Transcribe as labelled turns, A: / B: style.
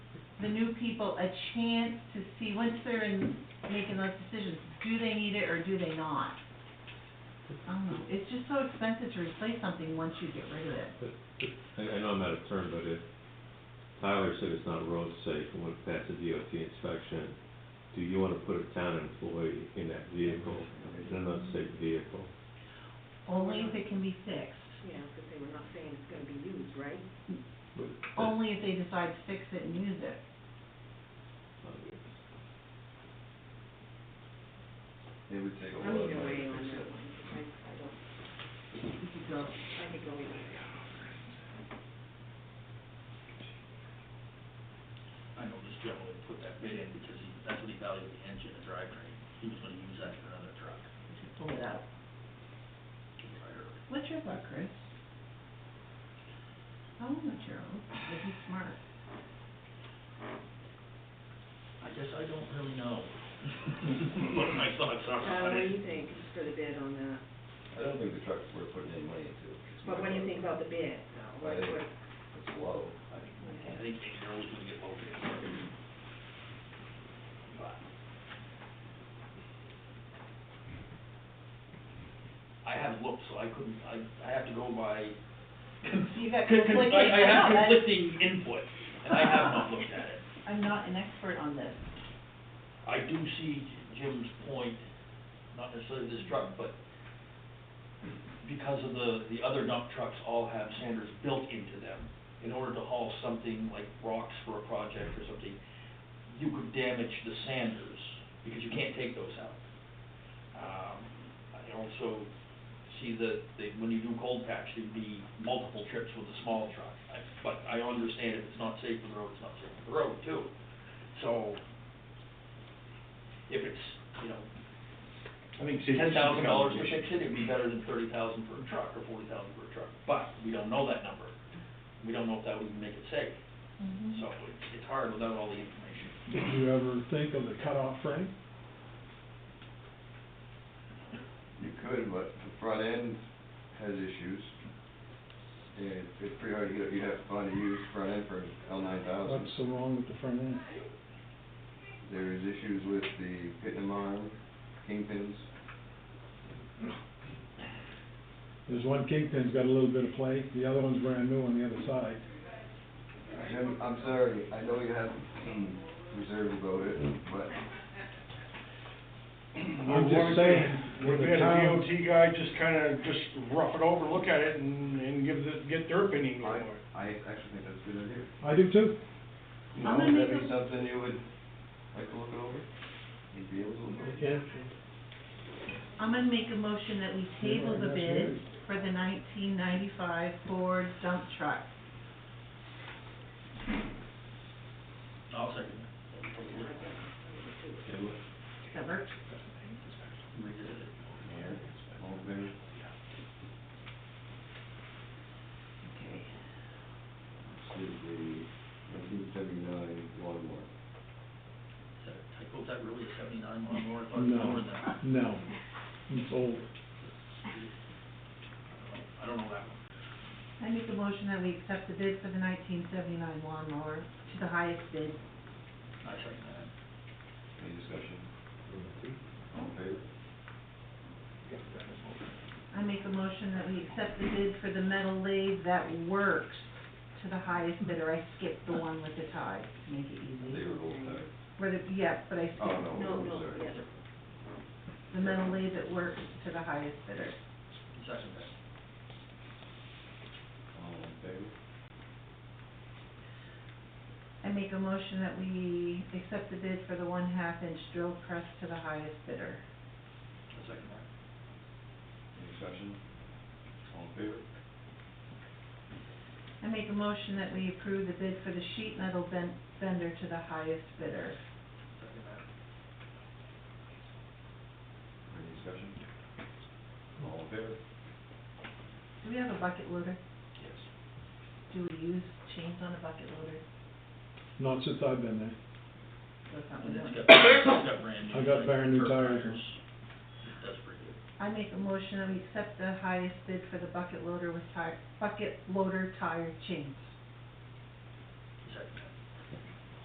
A: the new people a chance to see, once they're in, making those decisions, do they need it or do they not? I don't know, it's just so expensive to replace something once you get rid of it.
B: I, I know I'm out of turn, but if Tyler said it's not road safe and went past the DOT inspection, do you wanna put a town employee in that vehicle, in an unsafe vehicle?
A: Only if it can be fixed,
C: Yeah, because they were not saying it's gonna be used, right?
B: But that's-
C: Oh.
A: only if they decide to fix it and use it.
D: It would take a
C: I'm
D: lot of
C: either
D: money
C: way
D: to
C: on
D: fix
C: that
D: it.
C: one, I, I don't,
A: You could go,
C: I could go either way.
E: I know this gentleman put that bid in because he, that's what he valued the engine, the drivetrain. He was gonna use that for another truck.
A: just pull it out. What's your luck, Chris? Oh, I don't know Gerald, but he's smart.
E: I guess I don't really know. What my thoughts are
C: Uh,
E: on
C: what do
E: it.
C: you think for the bid on that?
D: I don't think the truck's worth putting any money into.
C: But what do you think about the bid, though?
D: I
C: What-
D: think
C: what-
D: it's low. I think
E: I think Daryl's gonna get both of them. But I haven't looked, so I couldn't, I, I have to go by.
A: You got
E: Con- con-
A: conflicting-
E: I, I
A: I
E: have
A: know, that's-
E: conflicting input, and I have not looked at it.
A: I'm not an expert on this.
E: I do see Jim's point, not necessarily this truck, but because of the, the other dump trucks all have sanders built into them, in order to haul something like rocks for a project or something, you could damage the sanders, because you can't take those out. Um, I also see that, that when you do cold patch, there'd be multiple trips with a small truck. I- But I understand if it's not safe for the road, it's not safe for the road too. So, if it's, you know,
F: I think safety
E: ten
F: should
E: thousand
F: be
E: dollars to
F: compensation.
E: fix it, it'd be better than thirty thousand per truck or forty thousand per truck, but we don't know that number. We don't know if that would make it safe, so it's, it's hard without all the information.
G: Did you ever think of the cutoff frame?
D: You could, but the front end has issues. And it's pretty hard, you'd, you'd have to find a used front end for an L nine thousand.
G: What's so wrong with the front end?
D: There's issues with the pin arm, kingpins.
G: There's one kingpin's got a little bit of play, the other one's brand new on the other side.
D: Jim, I'm sorry, I know you have some reserve about it, but
G: I'm just saying,
F: Would
G: with
F: we
G: the
F: had a
G: town,
F: DOT guy just kinda, just rough it over, look at it and, and give the, get their opinion on
D: I,
F: it.
D: I actually think that's a good idea.
G: I do too.
D: You
A: I'm
D: know,
A: gonna
D: would that
A: make
D: be
A: a-
D: something you would like to look it over? You'd be able to look it over?
A: I'm gonna make a motion that we table the bid for the nineteen ninety-five Ford dump truck.
E: I'll second
D: Okay, look,
A: Does that work?
D: here, all there.
A: Okay.
D: This is the nineteen seventy-nine lawnmower.
E: I hope that really is seventy-nine or more, I thought it was
G: No,
E: lower than that.
G: no, it's old.
E: I don't know that one.
A: I make a motion that we accept the bid for the nineteen seventy-nine lawnmower to the highest bid.
E: I second that.
D: Any discussion? All in favor?
A: Mm-hmm. I make a motion that we accept the bid for the metal lathe that works to the highest bidder. I skipped the one with the tie to make it
D: They
A: easy.
D: were both tied.
A: Where the, yeah, but I
D: Oh,
A: skipped
D: no,
C: No,
D: I'm
C: no,
D: sorry.
C: the other.
A: the metal lathe that works to the highest bidder.
E: Second that.
D: All in favor?
A: I make a motion that we accept the bid for the one-half inch drill press to the highest bidder.
E: I second that.
D: Any discussion? All in favor?
A: I make a motion that we approve the bid for the sheet metal ben- bender to the highest bidder.
E: Second that.
D: Any discussion? All in favor?
A: Do we have a bucket loader?
E: Yes.
A: Do we use chains on a bucket loader?
G: Not since I've been there.
A: That's not
E: And
A: what
E: it's
A: we
E: got,
A: want.
E: it's got brand new.
G: I got
E: like,
G: brand new
E: curb
G: tires.
E: It does pretty good.
A: I make a motion that we accept the highest bid for the bucket loader with tire, bucket loader tire chains.